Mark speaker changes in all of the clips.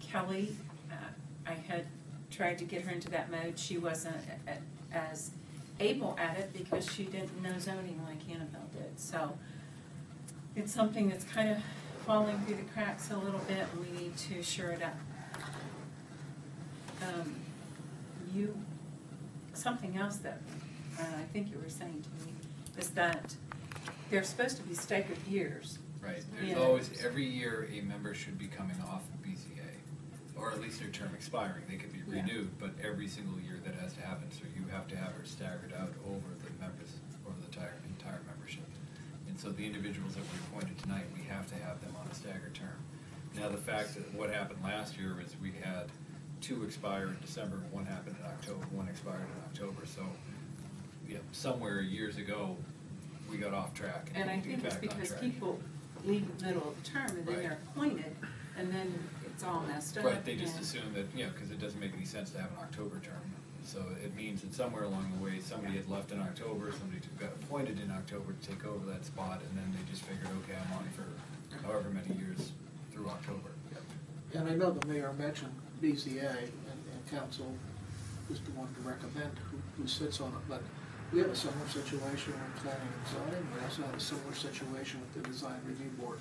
Speaker 1: Kelly, uh, I had tried to get her into that mode. She wasn't a- a- as able at it because she didn't know zoning like Annabelle did. So it's something that's kind of falling through the cracks a little bit, and we need to shore it up. Um, You, something else that uh, I think you were saying to me is that they're supposed to be staggered years.
Speaker 2: Right, there's
Speaker 1: Yeah.
Speaker 2: always, every year, a member should be coming off of BCA, or at least their term expiring, they could be
Speaker 1: Yeah.
Speaker 2: renewed, but every single year that has to happen, so you have to have it staggered out over the members, over the entire, entire membership. And so the individuals that we appointed tonight, we have to have them on a staggered term. Now, the fact that what happened last year is we had two expire in December, one happened in October, one expired in October, so, you know, somewhere years ago, we got off track.
Speaker 1: And I
Speaker 2: need to get
Speaker 1: think it's
Speaker 2: back on
Speaker 1: because
Speaker 2: track.
Speaker 1: people leave in the middle of the term and then
Speaker 2: Right.
Speaker 1: they're appointed, and then it's all messed up.
Speaker 2: Right, they just
Speaker 1: and-
Speaker 2: assume that, you know, because it doesn't make any sense to have an October term. So it means that somewhere along the way, somebody had left in October, somebody took- got appointed in October to take over that spot, and then they just figured, okay, I'm on for however many years through October.
Speaker 3: And I know the mayor mentioned BZA, and, and council is the one to recommend who, who sits on it, but we have a similar situation with planning and zoning, we also have a similar situation with the design review board.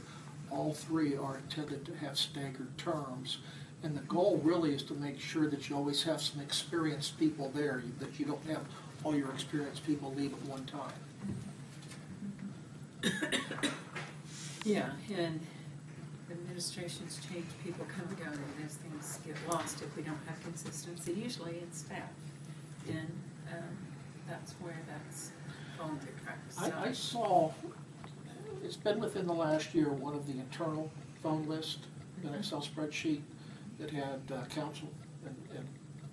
Speaker 3: All three are intended to have staggered terms, and the goal really is to make sure that you always have some experienced people there, that you don't have all your experienced people leave at one time.
Speaker 1: Yeah, and administrations change, people come and go, and those things get lost if we don't have consistency. Usually it's staff, and um, that's where that's falling through cracks. So-
Speaker 3: I, I saw, it's been within the last year, one of the internal phone list, an Excel spreadsheet that had uh, council and and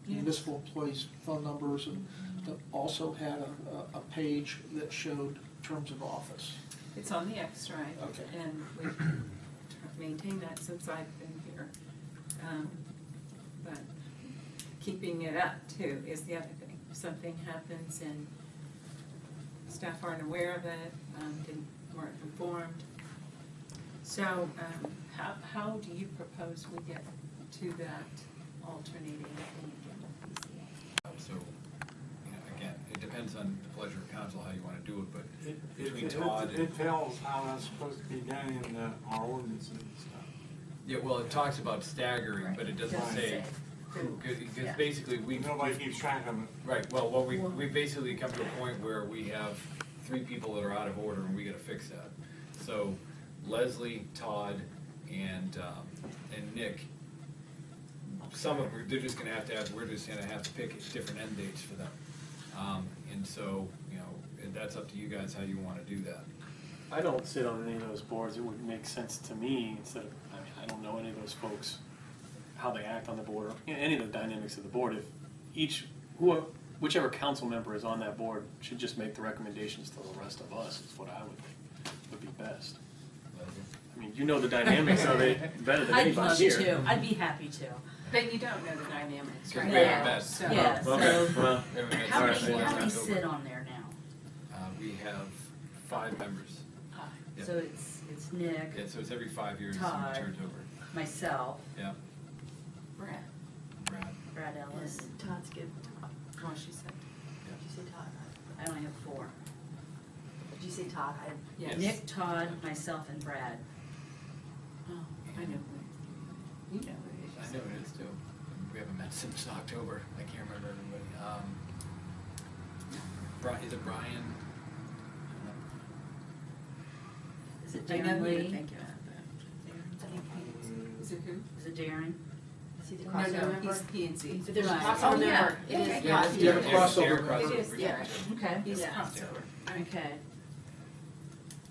Speaker 1: Yeah.
Speaker 3: municipal employees' phone numbers, and that also had a, a- a page that showed terms of office.
Speaker 1: It's on the X-ray.
Speaker 3: Okay.
Speaker 1: And we've tr- maintained that since I've been here. Um, But keeping it up too is the other thing. If something happens and staff aren't aware of it, um, didn't, weren't informed. So um, how, how do you propose we get to that alternating thing again?
Speaker 2: So, you know, again, it depends on the pleasure of council, how you want to do it, but
Speaker 4: It,
Speaker 2: Between
Speaker 4: it,
Speaker 2: Todd
Speaker 4: it,
Speaker 2: and-
Speaker 4: it tells how that's supposed to be done in the, our ordinances and stuff.
Speaker 2: Yeah, well, it talks about staggering, but it doesn't
Speaker 4: Doesn't
Speaker 2: say,
Speaker 1: say who.
Speaker 2: because
Speaker 1: Yeah.
Speaker 2: basically, we.
Speaker 4: Nobody keeps track of it.
Speaker 2: Right, well, what we, we basically come to a point where we have three people that are out of order and we gotta fix that. So Leslie, Todd, and, um, and Nick, some of, they're just gonna have to have, we're just gonna have to pick different end dates for them. Um, and so, you know, that's up to you guys how you wanna do that.
Speaker 5: I don't sit on any of those boards. It would make sense to me instead of, I mean, I don't know any of those folks, how they act on the board, or you know, any of the dynamics of the board. If each, who, whichever council member is on that board should just make the recommendations to the rest of us, is what I would think would be best.
Speaker 2: Leslie?
Speaker 5: I mean, you know the dynamics of it better than
Speaker 6: I'd
Speaker 5: anybody
Speaker 6: love
Speaker 5: here. Uh-huh.
Speaker 6: to. I'd be happy to.
Speaker 1: But you don't know the dynamics
Speaker 2: So
Speaker 1: right
Speaker 2: we
Speaker 1: now.
Speaker 2: haven't met.
Speaker 1: so-
Speaker 6: Yeah,
Speaker 5: Okay,
Speaker 6: so
Speaker 5: well,
Speaker 2: We haven't met
Speaker 6: how
Speaker 2: since
Speaker 6: many,
Speaker 2: last
Speaker 6: how many
Speaker 2: October.
Speaker 6: sit on there now?
Speaker 2: Uh, we have five members. Yeah.
Speaker 6: So it's, it's Nick,
Speaker 2: Yeah, so it's every five years,
Speaker 6: Todd.
Speaker 2: somebody turns over.
Speaker 6: myself,
Speaker 2: Yeah,
Speaker 1: Brett,
Speaker 2: Brad,
Speaker 6: Brad Ellis.
Speaker 7: Todd's good.
Speaker 1: well, she said,
Speaker 7: Did you say Todd?
Speaker 6: I only have four.
Speaker 7: Did you say Todd? I
Speaker 1: yes.
Speaker 6: Nick, Todd, myself, and Brad.
Speaker 1: Oh, I know who it is. You know who it
Speaker 2: I
Speaker 1: is.
Speaker 2: know it is too. We haven't met since October. I can't remember everybody. Um, Bri- is it Brian? uh,
Speaker 6: Is it
Speaker 1: I know
Speaker 6: Darren
Speaker 1: who you're
Speaker 6: Lee?
Speaker 1: thinking of,
Speaker 7: think he-
Speaker 1: but- Is it who?
Speaker 6: Is it Darren?
Speaker 7: See the
Speaker 1: No, no, he's
Speaker 7: crossover?
Speaker 1: P and Z.
Speaker 7: But there's a
Speaker 6: Right.
Speaker 7: crossover
Speaker 1: Oh, yeah.
Speaker 7: there. It is
Speaker 1: Yeah,
Speaker 7: Todd.
Speaker 3: yeah, yeah.
Speaker 2: Derek-
Speaker 3: crossover.
Speaker 2: Derek
Speaker 1: It
Speaker 2: crossover.
Speaker 1: is,
Speaker 2: We
Speaker 1: yeah.
Speaker 2: talked to him.
Speaker 7: Okay.
Speaker 1: He's
Speaker 2: Yeah.
Speaker 1: crossover. I mean,
Speaker 6: Okay.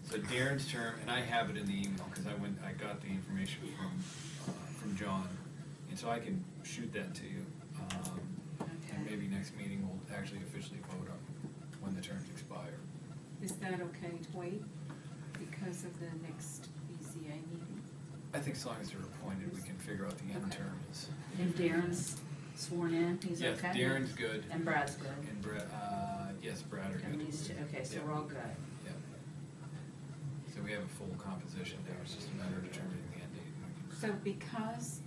Speaker 2: So Darren's term, and I have it in the email, cause I went, I got the information from, uh, from John, and so I can shoot that to you. Um, And
Speaker 6: Okay.
Speaker 2: maybe next meeting we'll actually officially vote on when the terms expire.
Speaker 1: Is that okay to wait because of the next BZA meeting?
Speaker 2: I think as long as they're appointed, we can figure out the end
Speaker 1: Okay.
Speaker 2: term is.
Speaker 6: And Darren's sworn in, he's
Speaker 2: Yes,
Speaker 6: okay?
Speaker 2: Darren's good,
Speaker 6: And Brad's good.
Speaker 2: and Brad, uh, yes, Brad are good.
Speaker 6: And these two, okay, so
Speaker 2: Yeah.
Speaker 6: we're all good.
Speaker 2: Yeah. So we have a full composition, now it's just a matter of determining the end date.
Speaker 1: So because